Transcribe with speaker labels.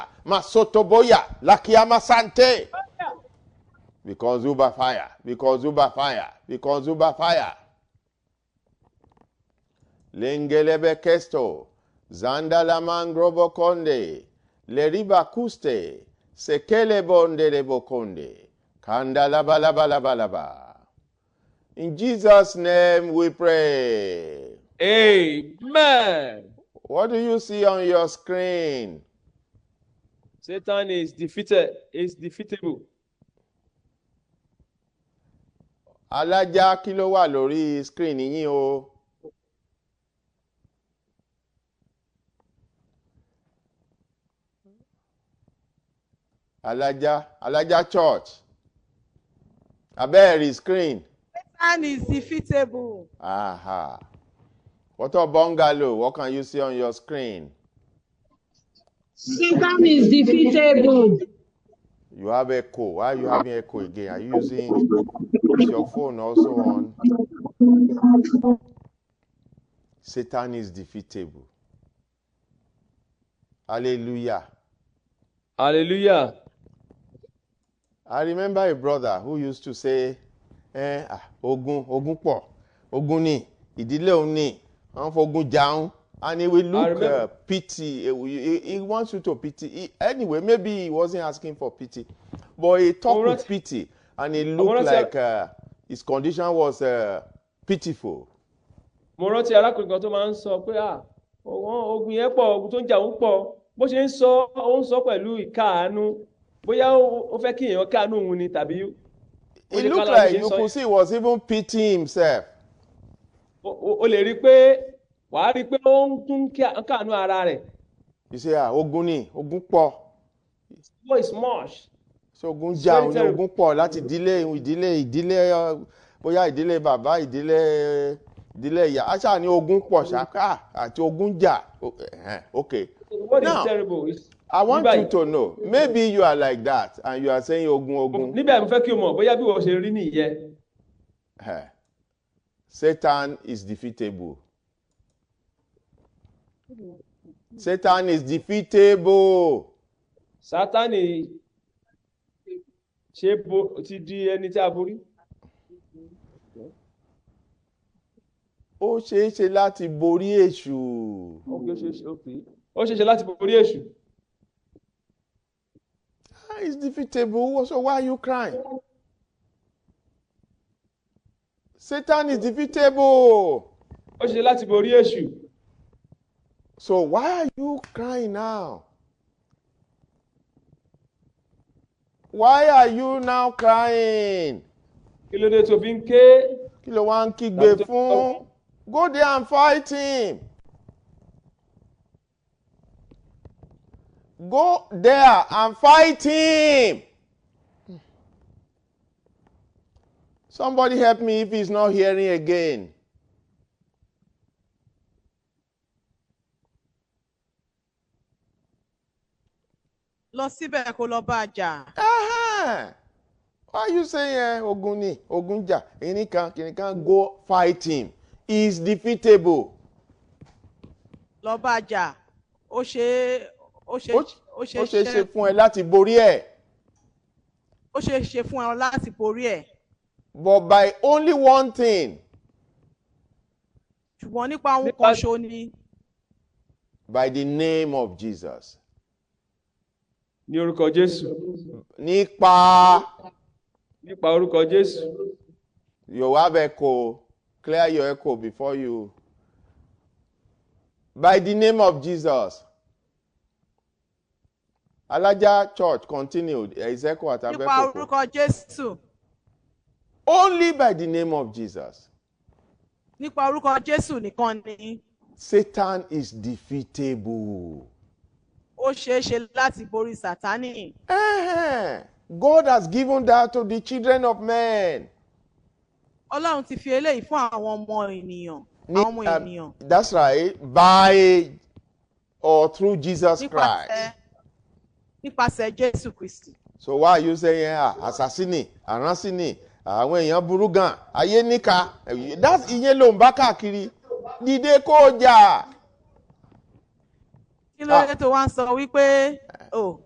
Speaker 1: masotoboya lakiama sante because you by fire because you by fire because you by fire lengelebe kesto zanda la mangrobo konde leriba kuste sekele bonde lebo konde kanda laba laba laba laba in jesus name we pray
Speaker 2: Amen.
Speaker 1: what do you see on your screen
Speaker 2: Satan is defeated, is defeatable.
Speaker 1: alájà kí ló wà lórí screen yín o alájà alájà church abẹ́ẹ̀rí screen
Speaker 3: Satan is defeatable.
Speaker 1: aha wọ́tọ̀ bungalow what can you see on your screen
Speaker 4: Satan is defeatable.
Speaker 1: you have echo why you having echo again are you using is your phone also on satan is defeatable hallelujah.
Speaker 2: Hallelujah.
Speaker 1: I remember a brother who used to say, eh, ah, ogun ogun pọ̀ ogun ni ìdílé òun ni wọ́n fogun jaun and he will look
Speaker 2: remember.
Speaker 1: uh, pity uh, he, he wants you to pity he, anyway maybe he wasn't asking for pity but he talked
Speaker 2: Ọmọ
Speaker 1: with
Speaker 2: rántí-
Speaker 1: pity and he
Speaker 2: Ọmọ
Speaker 1: looked
Speaker 2: rántí-
Speaker 1: like uh, his condition was uh, pitiful.
Speaker 2: Mo rántí arákùnrin kan tó máa ń sọ pé "Ah, ọwọ́n ogun yẹn pọ̀, ogun tó ń jà ń pọ̀. Bó ṣe ń sọ, ó ń sọ pẹ̀lú ìkáàánú. Bóyá ó ó fẹ́ kí èèyàn káàánú òun ni tàbí ó
Speaker 1: he
Speaker 2: lè
Speaker 1: looked
Speaker 2: kára bó
Speaker 1: like
Speaker 2: ṣe ń
Speaker 1: you
Speaker 2: sọ
Speaker 1: could
Speaker 2: yẹn.
Speaker 1: see he was even pitying himself.
Speaker 2: O- o- O lè rí i pé wàá rí i pé ó ń tún kíá- káàánú ara rẹ̀.
Speaker 1: you say ah ogun ni ogun pọ̀
Speaker 2: What is much?
Speaker 1: ṣé ogun
Speaker 2: It's
Speaker 1: jà
Speaker 2: very
Speaker 1: òun ní
Speaker 2: terrible.
Speaker 1: ogun pọ̀ láti ìdílé ìdílé ìdílé uh, bóyá ìdílé bàbá ìdílé ìdílé ìyá aṣá ni ogun pọ̀ ṣáká àti ogun jà O- ẹ̀hẹ́n, okay
Speaker 2: What is
Speaker 1: Now,
Speaker 2: terrible? is-
Speaker 1: i want
Speaker 2: Nígbà
Speaker 1: you
Speaker 2: yìí-
Speaker 1: to know maybe you are like that and you are saying ogun ogun
Speaker 2: Níbẹ̀ mo fẹ́ kí o mọ̀ bóyá bí wọ́n ṣe rí nìyẹn.
Speaker 1: Eh, satan is defeatable satan is defeatable
Speaker 2: Sátánì ṣe bo ti di ẹni tí a borí.
Speaker 1: ó ṣeé ṣe láti borí èṣù
Speaker 2: Ó kì í ṣe- ṣe- ó kì í- ó ṣeé ṣe láti borí èṣù.
Speaker 1: ah it's defeatable so why are you crying satan is defeatable.
Speaker 2: Ó ṣeé ṣe láti borí èṣù.
Speaker 1: So why are you crying now? Why are you now crying?
Speaker 2: Kí ló dé tó fi ń ké?
Speaker 1: Kí ló wá ń kígbe
Speaker 2: Doctor-
Speaker 1: fún? Go there and fight him. Go there and fight him. Somebody help me if he's not hearing again.
Speaker 3: Lọ síbẹ̀ kó lọ bá a jà.
Speaker 1: Aha! Why you say eh, ogun ni ogun jà ẹni kan kìnìún kan go fight him he is defeatable.
Speaker 3: Lọ bá a jà. Ó ṣe é ó ṣe
Speaker 1: Ó
Speaker 3: ó ṣe
Speaker 1: ó ṣeé ṣe
Speaker 3: ṣe
Speaker 1: fún ẹ láti borí ẹ
Speaker 3: ó ṣe é ṣe fún ọ láti borí ẹ̀.
Speaker 1: but by only one thing
Speaker 3: Ṣùgbọ́n nípa ohun
Speaker 2: Nípa-
Speaker 3: kan ṣo ni
Speaker 1: by the name of Jesus.
Speaker 2: Ní orúkọ Jésù.
Speaker 1: Nípa
Speaker 2: Nípa orúkọ Jésù.
Speaker 1: you have echo clear your echo before you. By the name of Jesus. Alaja church continued there is echo at
Speaker 3: nípa
Speaker 1: Abekoko.
Speaker 3: orúkọ Jésù
Speaker 1: Only by the name of Jesus.
Speaker 3: nípa orúkọ Jésù nìkan ni
Speaker 1: Satan is defeatable.
Speaker 3: ó ṣe é ṣe láti borí Sátánì.
Speaker 1: Eh-heh. God has given that to the children of men.
Speaker 3: Ọlọ́run ti fi eléyìí fún àwọn ọmọ ènìyàn
Speaker 1: Ni-
Speaker 3: àwọn ọmọ
Speaker 1: um,
Speaker 3: ènìyàn
Speaker 1: that's right. By or through Jesus
Speaker 3: nípasẹ̀
Speaker 1: Christ.
Speaker 3: nípasẹ̀ Jésù Kristì.
Speaker 1: So why are you saying ah, assassini, aransini, àwọn èèyàn burú gan, ayé níka? That's ìyẹn ló ń bá káàkiri. Dìde kó jà.
Speaker 3: Kí ló dé tó wá ń sọ wípé "Oh, o